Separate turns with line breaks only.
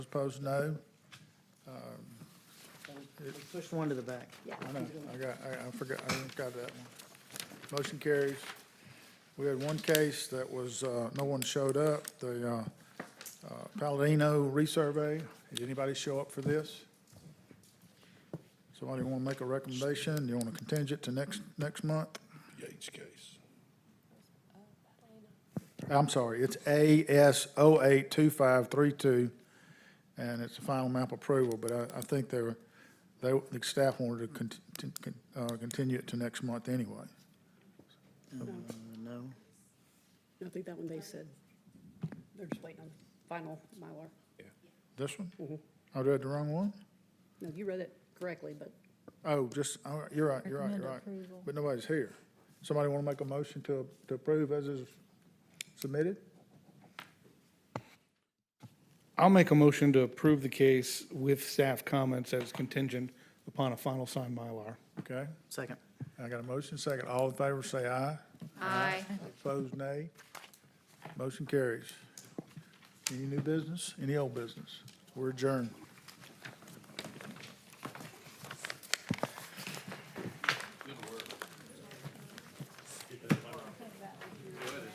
Those Opposed, no. Um,
Push one to the back.
I know, I got, I, I forgot, I didn't got that one. Motion carries. We had one case that was, uh, no one showed up, the, uh, uh, Palladino resurvey. Did anybody show up for this? Somebody want to make a recommendation? You want to contingent to next, next month?
Yates case.
I'm sorry, it's AS 082532, and it's a final map approval, but I, I think they were, they, the staff wanted to cont- to con- uh, continue it to next month anyway.
Uh, No.
I think that one they said, they're just waiting on the final Mylar.
This one?
Mhm.
I read the wrong one?
No, you read it correctly, but
Oh, just, all right, you're right, you're right, you're right. But nobody's here. Somebody want to make a motion to, to approve as is submitted?
I'll make a motion to approve the case with staff comments as contingent upon a final signed Mylar.
Okay,
Second.
I got a motion, second. All in favor, say aye.
Aye.
Opposed, nay. Motion carries. Any new business? Any old business? We're adjourned.